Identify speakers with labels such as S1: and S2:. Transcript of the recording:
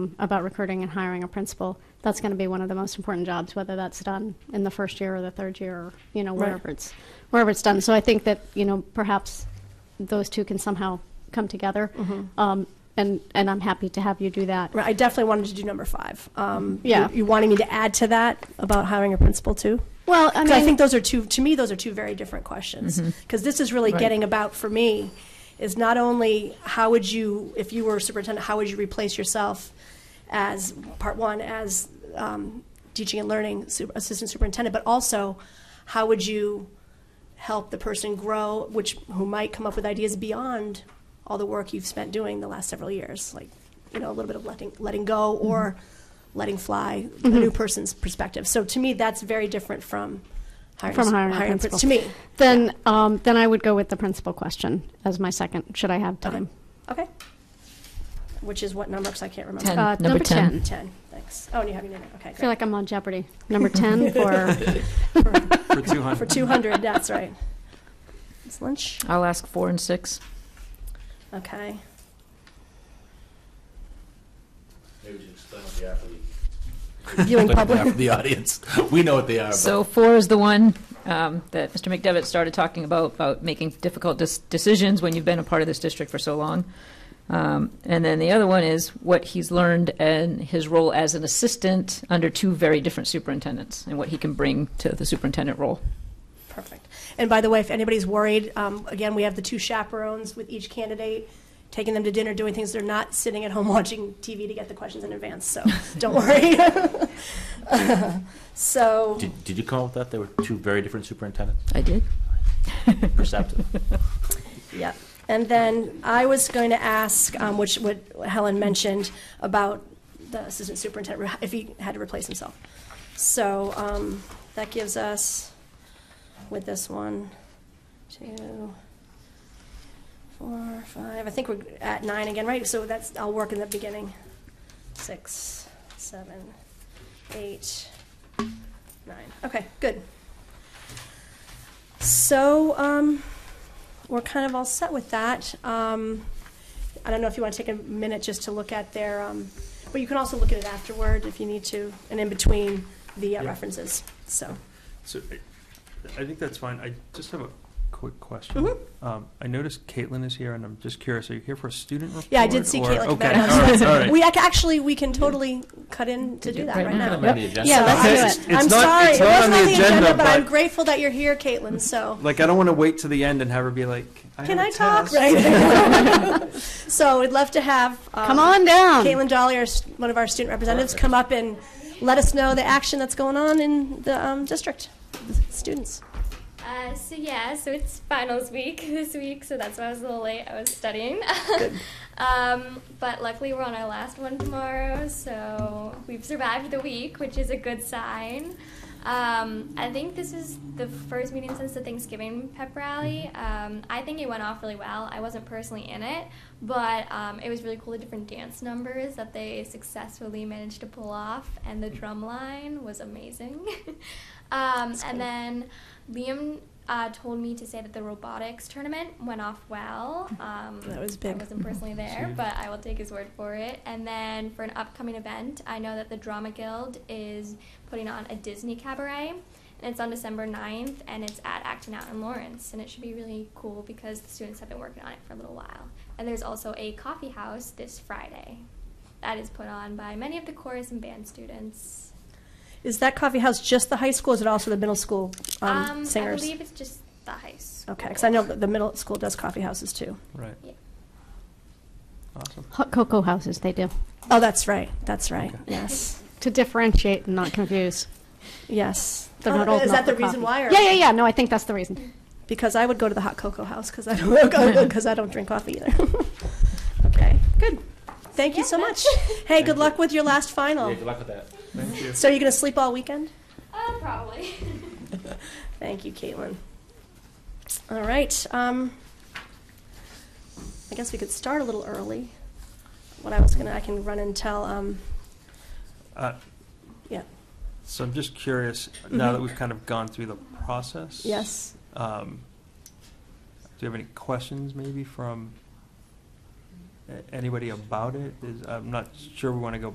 S1: about recruiting and hiring a principal, that's going to be one of the most important jobs, whether that's done in the first year or the third year, or, you know,
S2: Right.
S1: wherever it's, wherever it's done. So I think that, you know, perhaps those two can somehow come together. Um, and, and I'm happy to have you do that.
S2: Mm-hmm. Right, I definitely wanted to do number five. Um,
S1: Yeah.
S2: You, you wanted me to add to that about hiring a principal too?
S1: Well, I
S2: 'Cause
S1: mean, Mm-hmm.
S2: I think those are two, to me, those are two very different questions. Because this is really
S3: Right.
S2: getting about, for me, is not only how would you, if you were superintendent, how would you replace yourself as, part one, as um, teaching and learning su- assistant superintendent, but also how would you help the person grow, which, who might come up with ideas beyond all the work you've spent doing the last several years? Like, you know, a little bit of letting, letting go or
S1: Mm-hmm.
S2: letting fly, a new person's perspective. So to me, that's very different from hiring,
S1: From hiring a
S2: prin-
S1: principal.
S2: To me,
S1: then, um, then I would go with the principal question as my second, should I have time?
S2: Okay. Which is what number? Because I can't remember. Oh,
S3: Ten.
S1: Uh,
S3: Number
S1: number
S3: 10.
S1: 10.
S2: Ten. Thanks. Oh, and you have your name. Okay,
S1: I feel
S2: great.
S1: like I'm on Jeopardy. Number 10 for,
S4: For 200.
S2: For two hundred, that's right. It's lunch.
S3: I'll ask four and six.
S2: Okay.
S5: Maybe just explain what they are for the-
S2: Viewing
S5: explain what they are
S2: public.
S5: for the audience. We know what they are,
S3: So
S5: but
S3: four is the one um, that Mr. McDevitt started talking about, about making difficult dis- decisions when you've been a part of this district for so long. Um, and then the other one is what he's learned and his role as an assistant under two very different superintendents and what he can bring to the superintendent role.
S2: Perfect. And by the way, if anybody's worried, um, again, we have the two chaperones with each candidate, taking them to dinner, doing things. They're not sitting at home watching TV to get the questions in advance, so don't worry. So,
S5: did, did you come up with that? There were two very different superintendents,
S3: I did.
S5: perceptive.
S2: yeah. And then I was going to ask, um, which what Helen mentioned about the assistant superintendent, if he had to replace himself. So um, that gives us, with this one, two, four, five, I think we're at nine again, right? So that's, I'll work in the beginning. Six, seven, eight, nine. Okay, good. So um, we're kind of all set with that. Um, I don't know if you want to take a minute just to look at their, um, but you can also look at it afterward if you need to, and in between the uh,
S4: Yeah.
S2: references, so.
S4: So I- I think that's fine. I just have a quick question.
S2: Mm-hmm.
S4: Um, I noticed Caitlin is here, and I'm just curious, are you here for a student report?
S2: Yeah, I did see
S4: or-
S2: Caitlin come
S4: Okay,
S2: back.
S4: all right, all right.
S2: We, ac- actually, we can totally cut in to do that
S3: Right
S2: right
S3: now.
S2: now.
S5: On the agenda.
S1: Yeah,
S2: So
S1: let's
S2: I
S1: do
S2: just-
S4: it. It's
S2: I'm
S4: not-
S2: sorry,
S4: it's
S2: it
S4: not
S2: wasn't on the agenda, but
S4: but-
S2: I'm grateful that you're here, Caitlin, so.
S4: Like, I don't want to wait to the end and have her be like, I
S2: Can
S4: have a
S2: I talk?
S4: test."
S2: Right. So we'd love to have. um,
S1: come on down.
S2: Caitlin Dolly, our, st- one of our student representatives, come up and let us know the action that's going on in the um, district, the students.
S6: Uh, so yeah, so it's finals week this week, so that's why I was a little late. I was studying, um, but luckily we're on our last one tomorrow, so we've survived the week, which is a good sign. Um, I think this is the first meeting since the Thanksgiving pep rally. Um, I think it went off really well. I wasn't personally in it, but um, it was really cool the different dance numbers that they successfully managed to pull off, and the drum line was amazing. um, and then Liam uh, told me to say that the robotics tournament went off well. Um,
S2: That was big.
S6: I wasn't personally there, but I will take his word for it. And then for an upcoming event, I know that the Drama Guild is putting on a Disney cabaret. And it's on December 9th, and it's at Acting Out in Lawrence. And it should be really cool because the students have been working on it for a little while. And there's also a coffee house this Friday that is put on by many of the chorus and band students.
S2: Is that coffee house just the high school? Is it also the middle school um, singers?
S6: I believe it's just the high school.
S2: okay, because I know that the middle school does coffee houses too.
S4: Right.
S6: Yeah.
S4: Awesome.
S1: Hot cocoa houses, they do.
S2: Oh, that's right. That's right.
S4: Okay.
S2: Yes.
S1: To differentiate and not confuse.
S2: Yes.
S1: They're
S2: Oh,
S1: not old
S2: is
S1: enough
S2: that the
S1: for
S2: reason
S1: coffee.
S2: why? Or
S1: Yeah, yeah, yeah. No, I think that's the reason.
S2: Because I would go to the hot cocoa house because I don't because I don't drink coffee either. okay, good. Thank you
S6: Yeah,
S2: so much.
S6: that's-
S2: Hey, good luck with your last final.
S5: Yeah, good luck with that.
S4: Thank you.
S2: So you're gonna sleep all weekend?
S6: Uh, probably.
S2: Thank you, Caitlin. All right. Um, I guess we could start a little early. What I was gonna, I can run and tell. Um,
S4: Uh,
S2: yeah. Mm-hmm.
S4: So I'm just curious, now that we've kind of gone through the process.
S2: Yes.
S4: Um, do you have any questions maybe from a- anybody about it? Is, I'm not sure we want to go